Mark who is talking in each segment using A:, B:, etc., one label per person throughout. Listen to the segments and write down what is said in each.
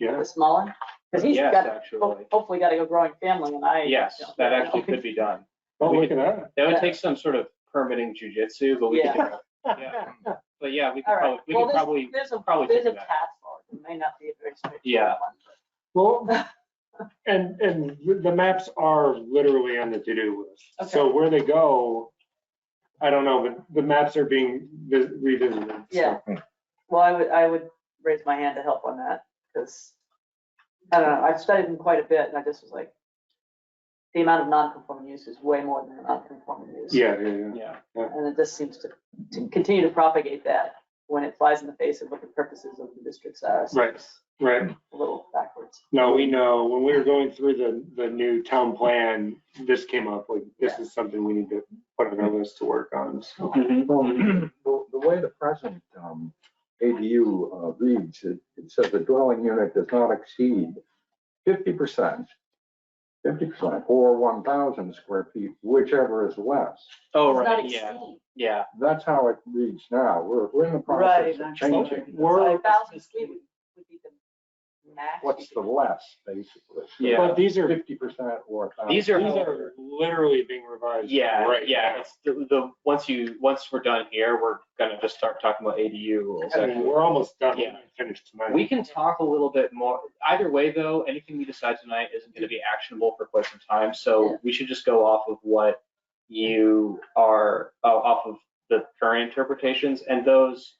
A: the small one? Because he's
B: Yes,
A: got,
B: actually.
A: ho- hopefully got a growing family and I.
B: Yes, that actually could be done.
C: Don't look at that.
B: That would take some sort of permitting jujitsu, but we could, do it. Yeah. but yeah, we could
A: All right.
B: probably, we
A: Well,
B: could
A: there's-
B: probably,
A: There's a,
B: probably
A: there's a
B: think about
A: task
B: it.
A: force. It may not be a very straightforward
B: Yeah.
A: one.
C: Well, and, and the maps are literally on the to-do list. So where they go, I don't know, but the maps are being vis- revisited. so.
A: Yeah. Well, I would, I would raise my hand to help on that, because, I don't know, I've studied them quite a bit, and I just was like, the amount of non-conforming use is way more than the non-conforming use.
C: Yeah, yeah, yeah.
B: yeah.
A: And it just seems to, to continue to propagate that when it flies in the face of what the purposes of the districts are. so
C: Right.
A: it's
C: Right.
A: A little backwards.
C: No, we know, when we were going through the, the new town plan, this came up, like, this is something we need to put on our list to work on. so.
B: Mhm.
D: Well, The the way the present um, ADU uh, reads, it it says the dwelling unit does not exceed fifty percent, fifty percent, or one thousand square feet, whichever is less.
B: Oh,
E: It's not
B: right, yeah,
E: exceeding.
B: yeah,
D: That's how it reads now. We're, we're in the
A: Right.
D: process of changing.
C: We're-
A: A thousand feet would would be the max.
D: What's the less, basically?
B: Yeah.
C: But these are,
D: Fifty percent or.
B: These
C: these
B: are-
C: are literally being revised.
B: yeah,
C: right
B: yeah.
C: now.
B: It's the, the, once you, once we're done here, we're gonna just start talking about ADU rules.
C: I mean, we're almost done,
B: Yeah.
C: finished tonight.
B: We can talk a little bit more. Either way, though, anything we decide tonight isn't gonna be actionable for quite some time,
A: Yeah.
B: so we should just go off of what you are, oh, off of the current interpretations, and those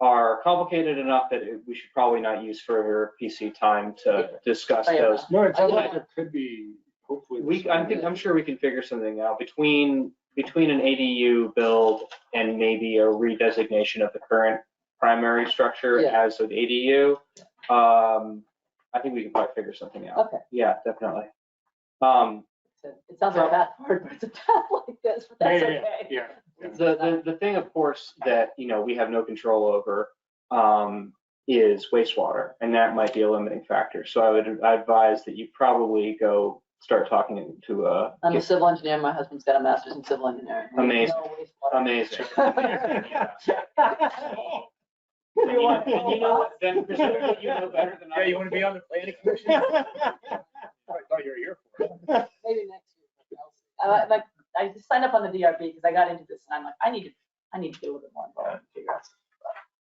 B: are complicated enough that it- we should probably not use further PC time to discuss
A: Yeah.
B: those.
C: No, it sounds
A: I-
C: like it could be, hopefully.
B: We, I think, I'm sure we can figure something out between, between an ADU build and maybe a redesignation of the current primary structure
A: Yeah.
B: as an ADU. Um, I think we can probably figure something out.
A: Okay.
B: Yeah, definitely. Um,
A: It sounds like a bad word, but it's a bad like this, but
C: Yeah,
A: that's
C: yeah, yeah,
A: okay.
C: Yeah.
B: the, the, the thing, of course, that, you know, we have no control over, um, is wastewater, and that might be a limiting factor. So I would advise that you probably go start talking to uh, a,
A: I'm a civil engineer. My husband's got a master's in civil engineering.
B: Amazing.
A: No wastewater.
B: amazing.
A: You
B: You
A: want-
B: know- you know what, then presumably you know better than I.
F: Yeah, you want to be on the planning commission? I thought you were here for it.
A: Maybe next year. I like, I just signed up on the DRB because I got into this and I'm like, I need to, I need to do a little more involved and figure out.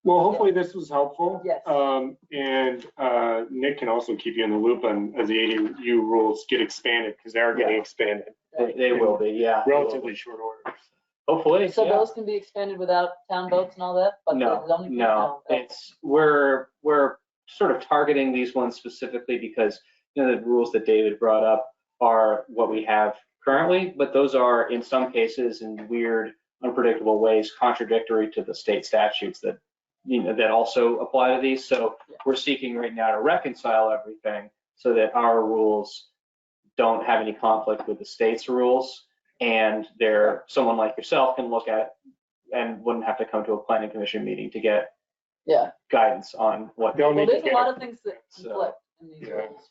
C: Well, hopefully this was helpful.
A: Yes.
C: Um, and, uh, Nick can also keep you in the loop on, as the ADU rules get expanded, because they are getting expanded
B: They, they will be, yeah.
C: relatively short order.
B: Hopefully,
A: So
B: yeah.
A: those can be expanded without town votes and all that, but the
B: No,
A: zoning.
B: no, it's, we're, we're sort of targeting these ones specifically because, you know, the rules that David brought up are what we have currently, but those are in some cases in weird, unpredictable ways contradictory to the state statutes that, you know, that also apply to these. So
A: Yeah.
B: we're seeking right now to reconcile everything so that our rules don't have any conflict with the state's rules. And there, someone like yourself can look at and wouldn't have to come to a planning commission meeting to get
A: Yeah,
B: guidance on what.
C: They'll
A: well,
C: need to
A: there's a
C: get-
A: lot of things that
B: So- Hmm.
A: conflict in these
C: Yeah.
A: rules.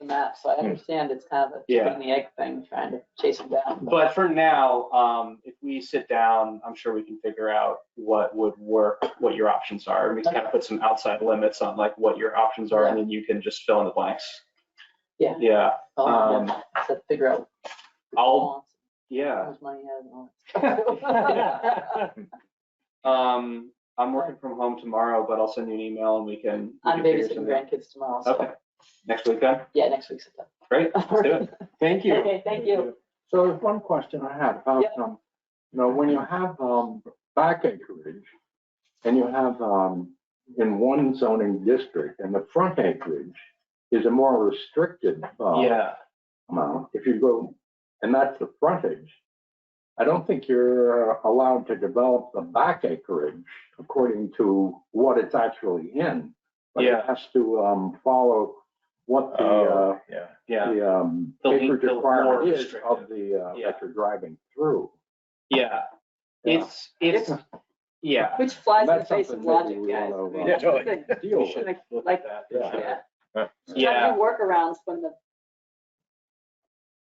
A: The map, so I understand it's kind of a
B: Yeah.
A: chicken and the egg thing, trying to chase them down.
B: But for now, um, if we sit down, I'm sure we can figure out what would work, what your options are. We can kind of put some outside limits on like what your options are and then you can just fill in the blanks.
A: Yeah.
B: Yeah,
A: Oh,
B: um,
A: yeah, So figure out. the
B: I'll-
A: balance, How
B: yeah.
A: much money he has and all that.
B: Um, I'm working from home tomorrow, but I'll send you an email and we can. we
A: I'm
B: can figure
A: babysitting
B: something out.
A: grandkids tomorrow, so,
B: Okay, next week then?
A: yeah, next week's. it.
B: Great, let's do it.
C: Thank you.
A: Okay, thank you.
D: So there's one question I had about,
A: Yeah.
D: um, you know, when you have, um, back acreage and you have, um, in one zoning district and the front acreage is a more restricted, uh,
B: Yeah,
D: amount, if you go, and that's the frontage, I don't think you're allowed to develop the back acreage according to what it's actually in. But it
B: Yeah.
D: has to, um, follow what the, uh,
F: Oh, yeah.
B: yeah,
D: the um,
B: The link
D: acreage
B: built more
D: requirement is
B: restrictive.
D: of the, uh,
B: Yeah.
D: that you're driving through.
B: yeah.
D: Yeah.
B: It's, it's, yeah.
A: Which flies in the
D: That's
A: face of
D: something that
A: logic,
D: we
A: guys.
D: will,
A: I mean,
D: uh,
F: Yeah, totally.
A: it's like-
D: Deal
B: We
D: with
B: should
A: like-
B: look
A: like-
B: at that.
D: yeah.
A: yeah. Trying to
B: Yeah,
A: do workarounds when the,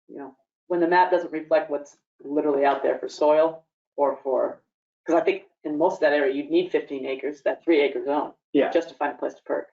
A: you know, when the map doesn't reflect what's literally out there for soil or for, because I think in most of that area, you'd need fifteen acres, that three acre zone.
B: Yeah.
A: Just to find a place to perk.